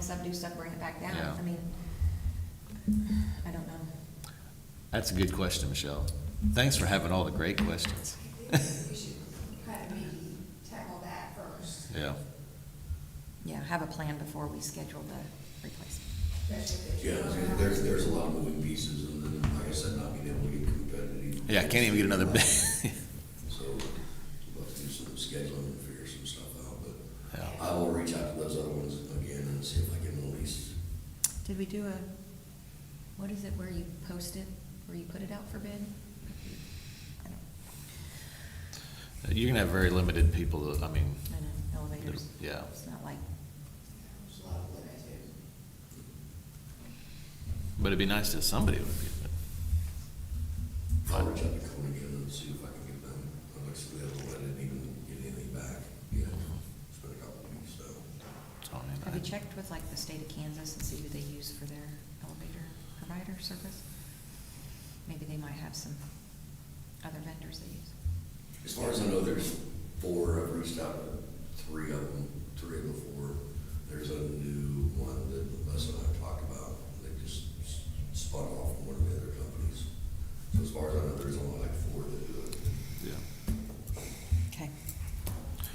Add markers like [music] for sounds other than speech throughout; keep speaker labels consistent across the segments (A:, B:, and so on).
A: stuff, do stuff, bring it back down.
B: Yeah.
A: I mean, I don't know.
B: That's a good question, Michelle. Thanks for having all the great questions.
C: We should kind of maybe tackle that first,
B: Yeah.
A: Yeah, have a plan before we schedule the replacement.
C: especially if
D: Yeah,
C: it's-
D: I mean, there's, there's a lot of moving pieces and then, like I said, not being able to get competitive.
B: Yeah, I can't even get another bid.
D: So we'll have to do some scheduling and figure some stuff out,
B: [laughs]
D: but
B: Yeah.
D: I will reach out to those other ones again and see if I can at least,
A: Did we do a, what is it where you post it, where you put it out for bid? I don't,
B: You're gonna have very limited people, that- I mean,
A: I know, elevators.
B: Yeah.
A: It's not like,
C: There's a lot of limited.
B: but it'd be nice if somebody would be.
D: I'll reach out to Cone again and see if I can get them. Like I said, the other one, I didn't even get anything back, you know, it's been a couple of weeks, so.
B: It's on in
A: have you
B: that.
A: checked with like the state of Kansas and see who they use for their elevator provider service? Maybe they might have some other vendors they use.
D: As far as I know, there's four, I've reached out to three of them, three of the four. There's a new one that Les and I talked about, they just s- spun off from one of the other companies. So as far as I know, there's only like four that do it.
B: Yeah.
A: Okay.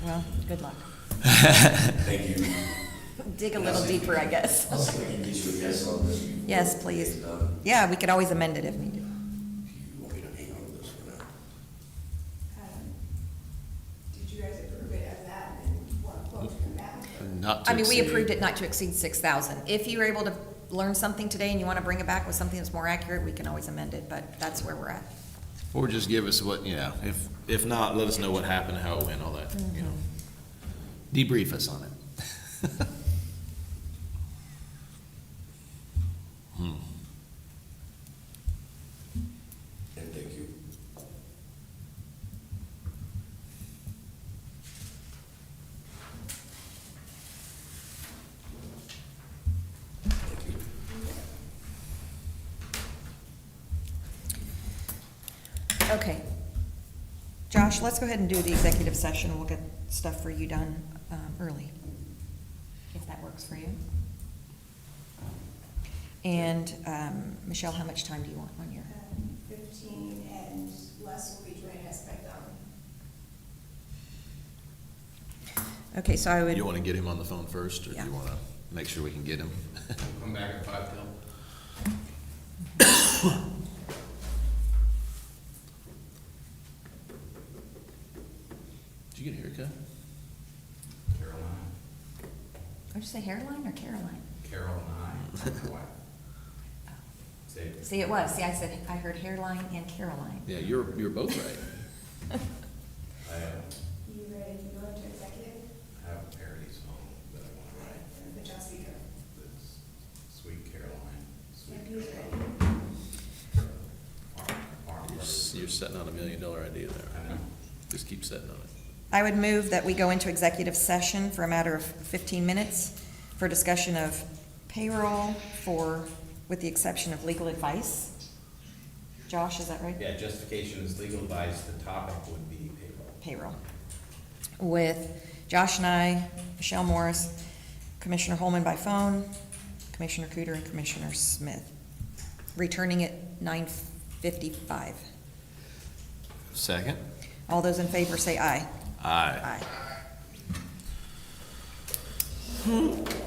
A: Well, good luck.
D: Thank you.
A: Dig a
D: And I'll
A: little
D: see if
A: deeper, I guess.
D: I'll see if I can get you a yes on this. before
A: Yes,
D: it's
A: please.
D: done.
A: Yeah, we could always amend it if needed.
D: If you want me to hang on to this for now.
C: Um, Did you guys approve it as that and want quote to come back?
B: Not to
A: I mean, we
B: exceed-
A: approved it not to exceed six thousand. If you're able to learn something today and you want to bring it back with something that's more accurate, we can always amend it, but that's where we're at.
B: Or just give us what, yeah, if, if not, let us know what happened, how it went, all that, you
A: Mm-hmm.
B: know. Debrief us on it. Hmm.
D: And thank you. Thank you.
A: Okay. Josh, let's go ahead and do the executive session. We'll get stuff for you done, um, early. If that works for you. And, um, Michelle, how much time do you want on your?
C: Um, Fifteen and Les will be joining us by then.
A: Okay, so I would.
B: You wanna get him on the phone first, or do
A: Yeah.
B: you wanna make sure we can get him? [laughs]
E: Come back at five till.
B: Did you get a haircut?
E: Caroline.
A: What'd you say, hairline or Caroline? [laughs] Oh.
E: Caroline. Say.
A: See, it was. See, I said, I heard hairline and Caroline. [laughs]
B: Yeah, you're, you're both right.
E: [laughs] I have,
C: You ready to go into executive?
E: I have a parody song that I want to write,
C: Uh, But just be careful.
E: that's Sweet Caroline. Sweet
C: If you're
E: Caroline.
C: ready.
E: Farm- Farm
B: You're,
E: Brothers.
B: s- you're setting on a million dollar idea
E: I
B: there.
E: know.
B: Just keep setting on it.
A: I would move that we go into executive session for a matter of 15 minutes for discussion of payroll for, with the exception of legal advice. Josh, is that right?
E: Yeah, justification is legal advice, the topic would be payroll.
A: Payroll. With Josh and I, Michelle Morris, Commissioner Holman by phone, Commissioner Cooter, and Commissioner Smith. Returning at 9:55.
B: Second?
A: All those in favor say aye.
B: Aye.
A: Aye.